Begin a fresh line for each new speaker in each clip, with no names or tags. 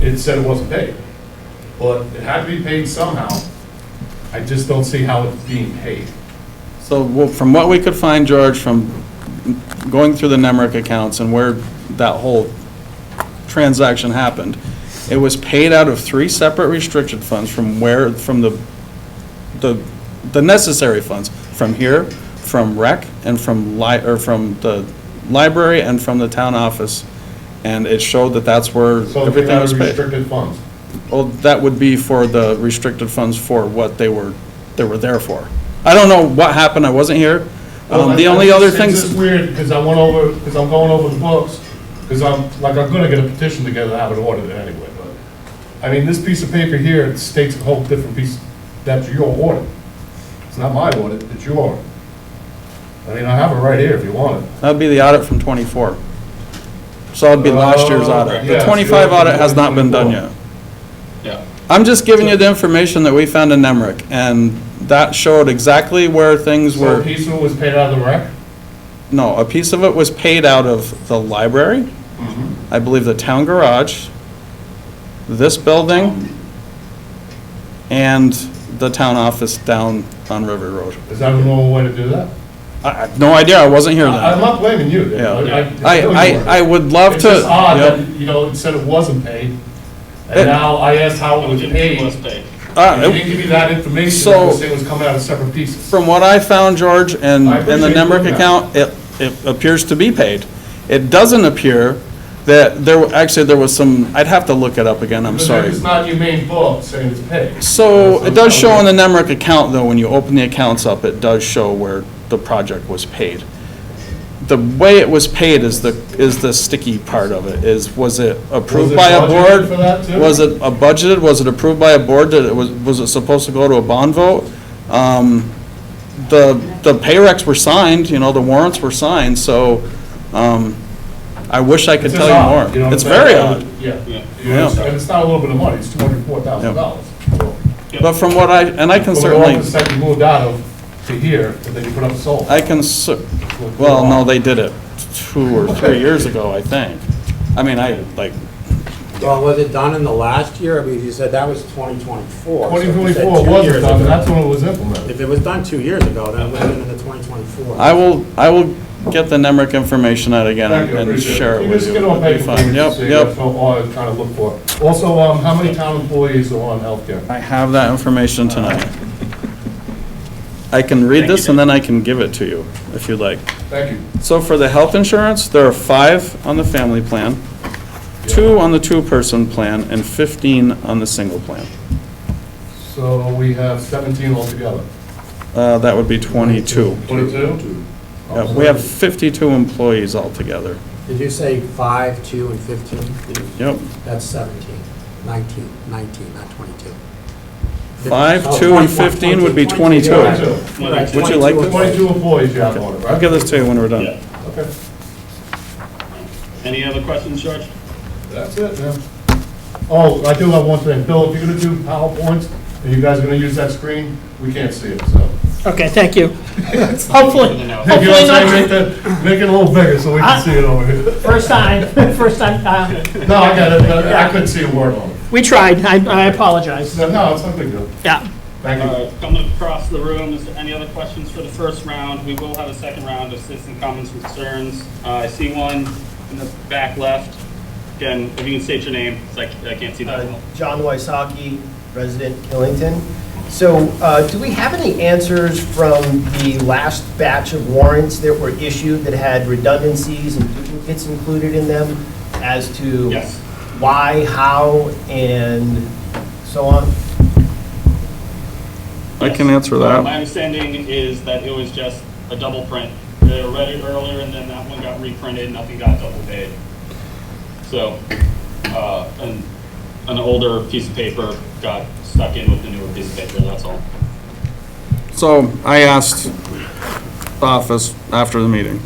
it said it wasn't paid. But it had to be paid somehow. I just don't see how it's being paid.
So well, from what we could find, George, from going through the Nemrick accounts and where that whole transaction happened, it was paid out of three separate restricted funds from where, from the, the, the necessary funds, from here, from rec, and from li, or from the library and from the town office. And it showed that that's where
So they
everything
had
was paid.
restricted funds.
Well, that would be for the restricted funds for what they were, they were there for. I don't know what happened, I wasn't here. Um, The
Well,
only
it's-
other
it's
things,
just weird, because I went over, because I'm going over the books, because I'm, like, I'm gonna get a petition together to have it ordered anyway, but, I mean, this piece of paper here it states a whole different piece, that's your audit. It's not my audit, it's your audit. I mean, I have it right here if you want it.
that'd be the audit from '24. So it'd be last year's
Oh,
audit.
yeah,
The
so
'25
you're
audit has not been done
24.
yet.
Yeah.
I'm just giving you the information that we found in Nemrick, and that showed exactly where things
So a
were.
piece of it was paid out of the rec?
No, a piece of it was paid out of the library, I believe the town garage, this building, and the town office down on River Road.
Is that a normal way to do that?
I, I, no idea, I wasn't here
I- I'm
then.
not blaming you. Dave.
Yeah.
it's
I,
really your
I, I
audit.
would love
It's
to.
just odd
Yep.
that, you know, it said it wasn't paid,
It-
and now I asked how it was paid.
Was paid.
Uh,
They didn't give you that information,
So-
they just said it was coming out of separate pieces.
From what I found, George, and,
I
and the
appreciate
Nemrick
that.
account, it, it appears to be paid. It doesn't appear that there, were- actually, there was some, I'd have to look it up again, I'm
But
sorry.
It's not your main book saying it's paid.
So it does show on
on
the Nemrick account, though, when you open the accounts up, it does show where the project was paid. The way it was paid is the, is the sticky part of it, is, was it approved
it
by a
budgeted
board?
for that, too?
Was it a budgeted, was it approved by a board, that it was, was it supposed to go to a bond vote? Um, The, the pay recs were signed, you know, the warrants were signed, so, um, I wish I could tell you more. It's very odd.
Yeah.
Yeah.
You understand? And it's not a little bit of money, it's two hundred and four thousand dollars.
But from what I, and I can certainly.
From the second you moved out of to here, and then you put up a solar.
I can, cer- well, no, they did it two or three years ago, I think. I mean, I, like,
Well, was it done in the last year? I mean, you said that was 2024. so if
Twenty
you said
twenty-four
two
wasn't
years
done, and
ago-
that's when it was implemented.
If it was done two years ago, then it would have been in the 2024.
I will, I will get the Nemrick information out again
Thank you, I
and
appreciate
share it
You
with
just
you.
get on
It'd be
paper,
fine.
please,
Yep,
so you
yep.
know all I'm trying to look for. Also, um, how many town employees are on healthcare?
I have that information tonight. I can read this and then I can give it to you, if you'd like.
Thank you.
So for the health insurance, there are five on the family plan, two on the two-person plan, and 15 on the single plan.
So we have seventeen altogether.
Uh, That would be 22.
Twenty-two?
Yeah, We have 52 employees altogether.
Did you say 5, 2, and 15?
Yep.
That's 17, 19, 19, not 22.
Five,
Oh,
two, and
21,
15 would be
22.
Right,
Would you like
22.
Twenty-two employees you have on it,
I'll
right?
give this to you when we're done.
Yeah.
Okay,
Any other questions, George?
that's it, man. Oh, I do have one thing. Bill, if you're gonna do PowerPoints, and you guys are gonna use that screen, we can't see it, so.
Okay, thank you. Hopefully,
You know
hopefully
what I'm saying? Make
not,
that, make it a little bigger so we can see it over here.
first time, first time, uh,
No, I got it, I couldn't see a word on it.
we tried, I, I apologize,
No, No, it's not big deal.
yeah.
Thank you.
Uh, Coming across the room, is there any other questions for the first round? We will have a second round of citizen comments and concerns. Uh, I see one in the back left. Again, if you can state your name, 'cause I c- I can't see that well.
Uh, John Wysocki, resident Killington. So uh, do we have any answers from the last batch of warrants that were issued that had redundancies and duplicates included in them as to
Yes.
why, how, and so on?
I can answer
My
that.
understanding is that it was just a double print. They read it earlier, and then that one got reprinted, nothing got double paid. So, uh, an, an older piece of paper got stuck in with the newer piece of paper, that's all.
So I asked the office after the meeting.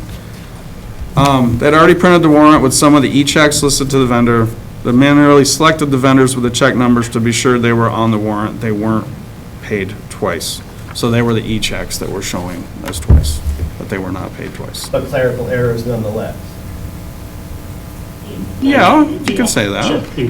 Um, They'd already printed the warrant with some of the e-checks listed to the vendor. They manually selected the vendors with the check numbers to be sure they were on the warrant. They weren't paid twice. So they were the e-checks that were showing as twice, but they were not paid twice.
But clerical errors nonetheless.
Yeah, you can say that.
Sure.